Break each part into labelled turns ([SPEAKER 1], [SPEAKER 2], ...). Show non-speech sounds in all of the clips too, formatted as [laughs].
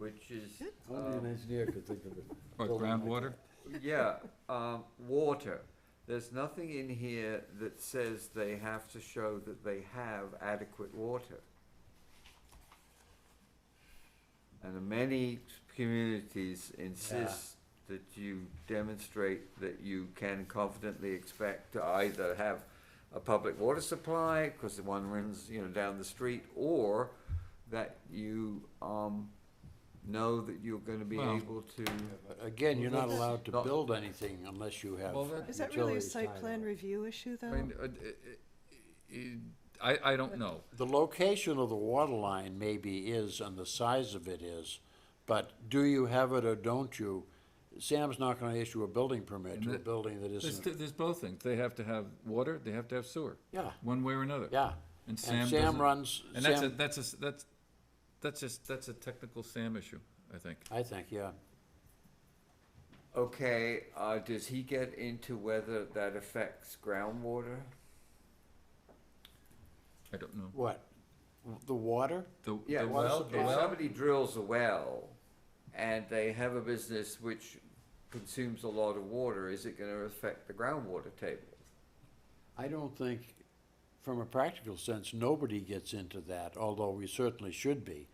[SPEAKER 1] um,
[SPEAKER 2] Only an engineer could think of it.
[SPEAKER 3] [laughs] What, groundwater?
[SPEAKER 1] Yeah, um, water. There's nothing in here that says they have to show that they have adequate water. And many communities insist that you demonstrate that you can confidently expect to either have a public water supply, because the one runs, you know, down the street, or that you, um, know that you're gonna be
[SPEAKER 3] Well-
[SPEAKER 1] able to.
[SPEAKER 2] Again, you're not allowed to
[SPEAKER 1] Not-
[SPEAKER 2] build anything unless you have
[SPEAKER 3] Well, that-
[SPEAKER 4] Is that really a
[SPEAKER 2] utilities tied
[SPEAKER 4] site
[SPEAKER 2] up.
[SPEAKER 4] plan review issue,
[SPEAKER 3] I
[SPEAKER 4] though?
[SPEAKER 3] mean, uh, uh, uh, I, I don't know.
[SPEAKER 2] The location of the water line maybe is, and the size of it is, but do you have it or don't you? Sam's not gonna issue a building permit to a
[SPEAKER 3] that-
[SPEAKER 2] building that
[SPEAKER 3] There's,
[SPEAKER 2] isn't,
[SPEAKER 3] th- there's both things. They have to have water, they have to have sewer.
[SPEAKER 2] Yeah.
[SPEAKER 3] One way or another.
[SPEAKER 2] yeah.
[SPEAKER 3] And Sam
[SPEAKER 2] Sam
[SPEAKER 3] doesn't-
[SPEAKER 2] runs,
[SPEAKER 3] And that's a,
[SPEAKER 2] Sam,
[SPEAKER 3] that's a, s- that's, that's just, that's a technical Sam issue, I think.
[SPEAKER 2] I think, yeah.
[SPEAKER 1] Okay, uh, does he get into whether that affects groundwater?
[SPEAKER 3] I don't know.
[SPEAKER 2] What? The water?
[SPEAKER 3] The,
[SPEAKER 1] Yeah,
[SPEAKER 3] the
[SPEAKER 2] water
[SPEAKER 1] well,
[SPEAKER 3] well, the
[SPEAKER 2] supply.
[SPEAKER 1] if
[SPEAKER 3] well-
[SPEAKER 1] somebody drills a well and they have a business which consumes a lot of water, is it gonna affect the groundwater table?
[SPEAKER 2] I don't think, from a practical sense, nobody gets into that, although we certainly should be.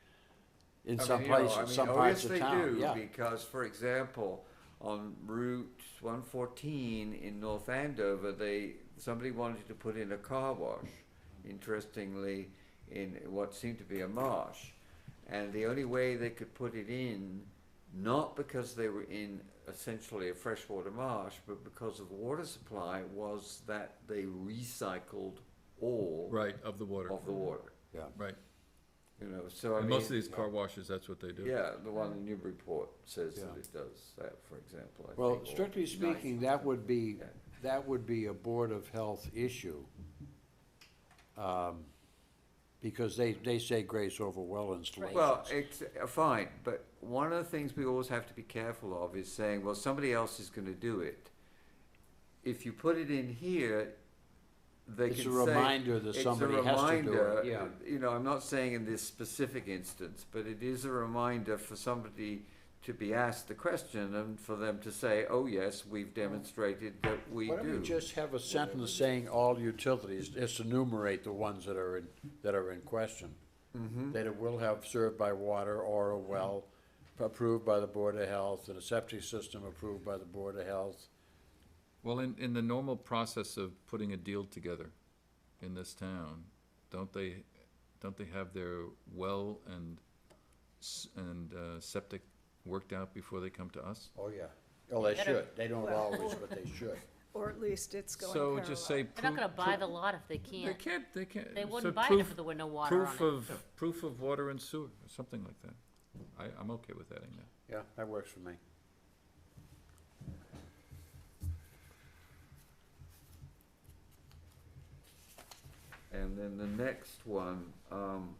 [SPEAKER 2] In
[SPEAKER 1] I
[SPEAKER 2] some
[SPEAKER 1] mean, you know, I
[SPEAKER 2] places,
[SPEAKER 1] mean,
[SPEAKER 2] some
[SPEAKER 1] oh,
[SPEAKER 2] parts
[SPEAKER 1] yes,
[SPEAKER 2] of
[SPEAKER 1] they
[SPEAKER 2] town,
[SPEAKER 1] do,
[SPEAKER 2] yeah.
[SPEAKER 1] Because, for example, on Route one fourteen in North Andover, they, somebody wanted to put in a car wash, interestingly, in what seemed to be a marsh. And the only way they could put it in, not because they were in essentially a freshwater marsh, but because of the water supply, was that they recycled all
[SPEAKER 3] right, of the water,
[SPEAKER 1] of the water,
[SPEAKER 3] right.
[SPEAKER 1] you know, so I
[SPEAKER 3] And
[SPEAKER 1] mean.
[SPEAKER 3] most of these car washes, that's what they do.
[SPEAKER 1] Yeah, the one in Newburyport says that
[SPEAKER 2] Yeah.
[SPEAKER 1] it does that, for example, I
[SPEAKER 2] Well,
[SPEAKER 1] think, or
[SPEAKER 2] strictly
[SPEAKER 1] nice.
[SPEAKER 2] speaking, that would be,
[SPEAKER 1] Yeah.
[SPEAKER 2] that would be a Board of Health issue. um, Because they, they say grace over well installations.
[SPEAKER 1] Well, it's, uh, fine, but one of the things we always have to be careful of is saying, well, somebody else is gonna do it. If you put it in here, they can
[SPEAKER 2] It's
[SPEAKER 1] say.
[SPEAKER 2] a reminder that
[SPEAKER 1] it's a
[SPEAKER 2] somebody has to do
[SPEAKER 1] reminder,
[SPEAKER 2] it, yeah.
[SPEAKER 1] You know, I'm not saying in this specific instance, but it is a reminder for somebody to be asked the question and for them to say, oh, yes, we've demonstrated that we do.
[SPEAKER 2] Why don't we just have a sentence saying all utilities, just enumerate the ones that are in, that are in question? That it will have served by water or a well approved by the Board of Health, and a septic system approved by the Board of Health.
[SPEAKER 3] Well, in, in the normal process of putting a deal together in this town, don't they, don't they have their well and, s- and uh, septic worked out before they come to us?
[SPEAKER 2] Oh, yeah. Oh, they
[SPEAKER 5] Better-
[SPEAKER 2] should. They don't
[SPEAKER 4] Well-
[SPEAKER 2] always, but they should.
[SPEAKER 4] Or at least it's going
[SPEAKER 3] So
[SPEAKER 4] parallel.
[SPEAKER 3] just say.
[SPEAKER 5] They're not gonna
[SPEAKER 3] proof-
[SPEAKER 5] buy the
[SPEAKER 3] proof-
[SPEAKER 5] lot if they
[SPEAKER 3] They
[SPEAKER 5] can't.
[SPEAKER 3] can't, they can't.
[SPEAKER 5] They
[SPEAKER 3] so
[SPEAKER 5] wouldn't buy it if
[SPEAKER 3] proof-
[SPEAKER 5] there were no water on
[SPEAKER 3] Proof
[SPEAKER 5] it.
[SPEAKER 3] of, proof of water and sewer, or something like that. I, I'm okay with adding
[SPEAKER 2] [laughs]
[SPEAKER 3] that.
[SPEAKER 2] Yeah, that works for me.
[SPEAKER 1] And then the next one, um,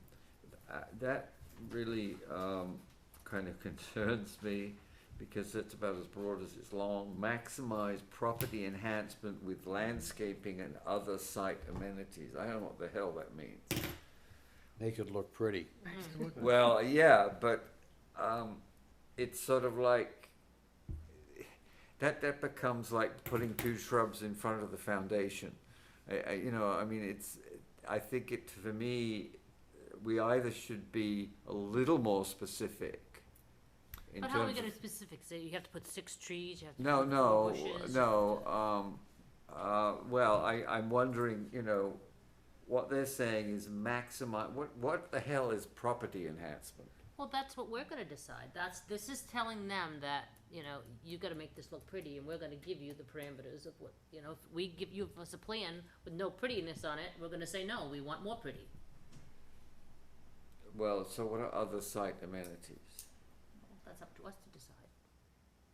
[SPEAKER 1] uh, that really, um, kind of [laughs] concerns me because it's about as broad as it's long. Maximize property enhancement with landscaping and other site amenities. I don't know what the hell that means.
[SPEAKER 2] Make it look pretty.
[SPEAKER 1] Well, yeah, but, um, it's sort of like, that, that becomes like putting two shrubs in front of the foundation. I, I, you know, I mean, it's, I think it, for me, we either should be a little more specific in
[SPEAKER 5] But how are we
[SPEAKER 1] terms
[SPEAKER 5] gonna
[SPEAKER 1] of.
[SPEAKER 5] specific, so you have to put six trees, you have to
[SPEAKER 1] No,
[SPEAKER 5] put four
[SPEAKER 1] no, uh,
[SPEAKER 5] bushes?
[SPEAKER 1] no, um, uh, well, I, I'm wondering, you know, what they're saying is maximize, what, what the hell is property enhancement?
[SPEAKER 5] Well, that's what we're gonna decide. That's, this is telling them that, you know, you gotta make this look pretty and we're gonna give you the parameters of what, you know, if we give you us a plan with no prettiness on it, we're gonna say, no, we want more pretty.
[SPEAKER 1] Well, so what are other site amenities?
[SPEAKER 5] That's up to us to decide.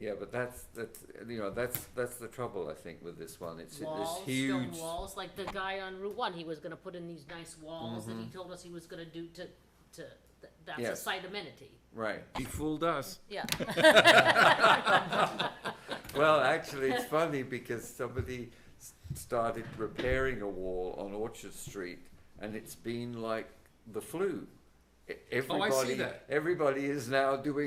[SPEAKER 1] Yeah, but that's, that's, you know, that's, that's the trouble, I think, with this one, it's this
[SPEAKER 5] Walls,
[SPEAKER 1] huge.
[SPEAKER 5] stone walls, like the guy on Route One, he was gonna put in these nice walls that he told us he was gonna do to, to, th- that's a
[SPEAKER 1] Mm-hmm. Yes.
[SPEAKER 5] site amenity.
[SPEAKER 1] Right,
[SPEAKER 3] He fooled us.
[SPEAKER 5] Yeah.
[SPEAKER 1] well, actually, it's funny because somebody s- started repairing a wall on Orchard Street and it's been like the flu. E-
[SPEAKER 3] Oh, I see
[SPEAKER 1] Everybody,
[SPEAKER 3] that.
[SPEAKER 1] everybody is now doing